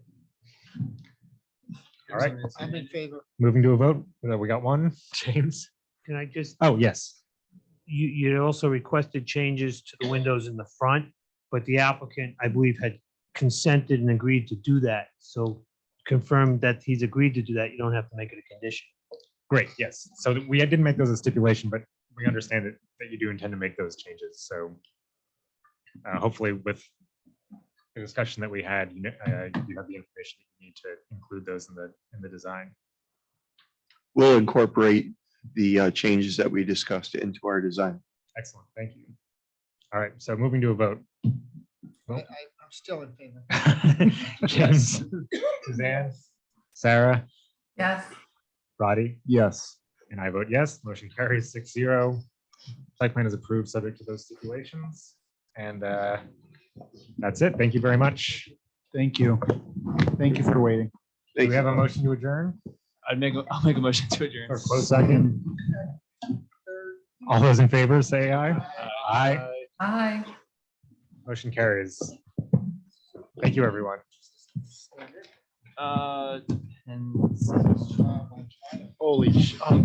All right. I'm in favor. Moving to a vote. Uh, We got one, James. Can I just, Oh, yes. you, you also requested changes to the windows in the front, but the applicant, I believe, had consented and agreed to do that. So confirm that he's agreed to do that. You don't have to make it a condition. Great, yes. So th- we didn't make those a stipulation, but we understand that, that you do intend to make those changes, so. uh, Hopefully with the discussion that we had, you know, uh, you have the information that you need to include those in the, in the design. We'll incorporate the uh, changes that we discussed into our design. Excellent, thank you. All right, so moving to a vote. I, I, Well- I'm still in favor. James, Suzanne, Sarah, Yes, Roddy, Yes, and I vote yes. Motion carries six zero. Site plan is approved, subject to those stipulations. And uh, that's it. Thank you very much. thank you. Thank you for waiting. Do we Thank have you. a motion to adjourn I'd make, a- I'll make a motion to adjourn. or close second? All those in favor, say aye. Aye. aye. Motion carries. Thank you, everyone. Uh, depends. Um, Holy sh. oh,